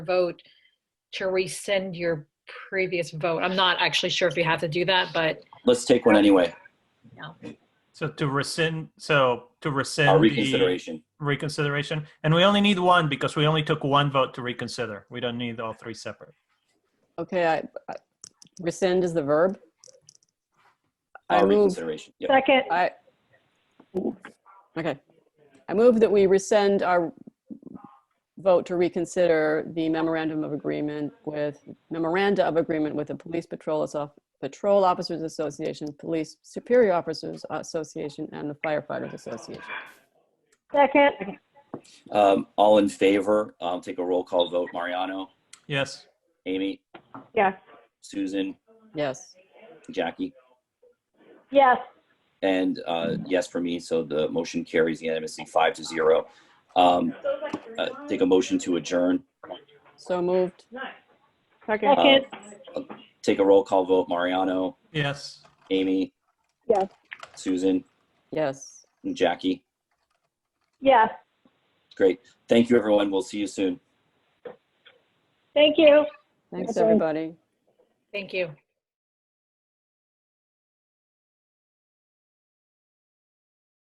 vote to rescind your previous vote. I'm not actually sure if you have to do that, but Let's take one anyway, So to rescind, so to rescind our the reconsideration. reconsideration, and we only need one because we only took one vote to reconsider. We don't need all three separate. Okay, I, I- rescind is the verb. I Our move, reconsideration. Yep. Second, I, okay. I move that we rescind our vote to reconsider the memorandum of agreement with, memoranda of agreement with the Police Patrol, Asso- Patrol Officers Association, Police Superior Officers Association, and the Firefighters Association. second, Um, all in favor, I'll take a roll call vote. Mariano, Yes. Amy, yes. Susan, Yes, Jackie, Yes, and, uh, yes for me. So the motion carries unanimously five to zero. Um, uh, take a motion to adjourn, so moved. second, take a roll call vote. Mariano, Yes. Amy. Yes. Susan, Yes, and Jackie. yes. Great. Thank you, everyone. We'll see you soon. Thank you. thanks, Okay. everybody. thank you.